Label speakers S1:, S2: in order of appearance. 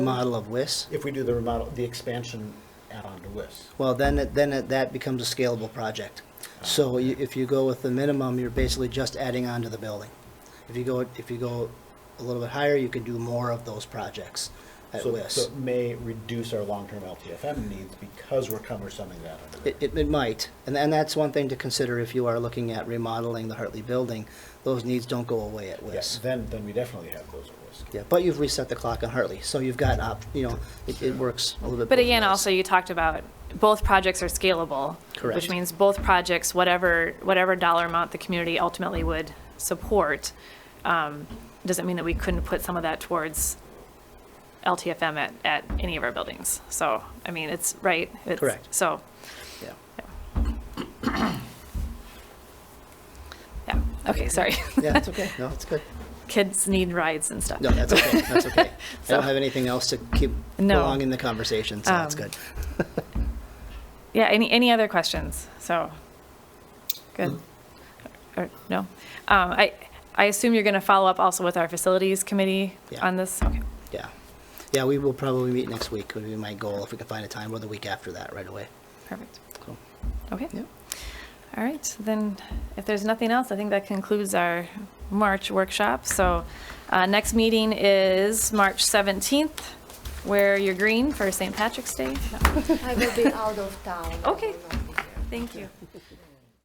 S1: model of WIS,
S2: If we do the remodel, the expansion add-on to WIS.
S1: well, then, it- then it- that becomes a scalable project. So you- if you go with the minimum, you're basically just adding on to the building. If you go, if you go a little bit higher, you can do more of those projects at
S2: So- So
S1: WIS.
S2: it may reduce our long-term LTFM needs because we're cumbersoming that. under
S1: It,
S2: it.
S1: it it might, and, and that's one thing to consider if you are looking at remodeling the Hartley building. Those needs don't go away at
S2: Yeah,
S1: WIS.
S2: Then, then we definitely have those at WIS.
S1: Yeah, but you've reset the clock on Hartley, so you've got, op- you know, it, it works a little bit.
S3: But
S1: both
S3: again,
S1: ways.
S3: also you talked about both projects are scalable.
S1: Correct.
S3: Which means both projects, whatever, whatever dollar amount the community ultimately would support, um, doesn't mean that we couldn't put some of that towards LTFM at, at any of our buildings. So, I mean, it's, right? It's-
S1: Correct.
S3: So,
S1: Yeah.
S3: yeah, okay, sorry.
S1: Yeah, that's okay, no, it's good.
S3: Kids need rides and stuff.
S1: No, that's okay, that's okay. I
S3: So-
S1: don't have anything else to keep
S3: No.
S1: prolonging the conversation, so that's
S3: Um,
S1: good.
S3: Yeah, any, any other questions? So, good.
S1: Mm-hmm.
S3: Or, no? Um, I, I assume you're going to follow up also with our facilities committee
S1: Yeah.
S3: on this? Okay.
S1: Yeah. Yeah, we will probably meet next week, would be my goal, if we can find a time, or the week after that, right away.
S3: Perfect.
S1: Cool.
S3: Okay.
S1: Yep.
S3: All right. Then if there's nothing else, I think that concludes our March workshop. So uh, next meeting is March 17th. Wear your green for St. Patrick's Day. No.
S4: I will be out of town. I
S3: Okay.
S4: will not be here.
S3: Thank you.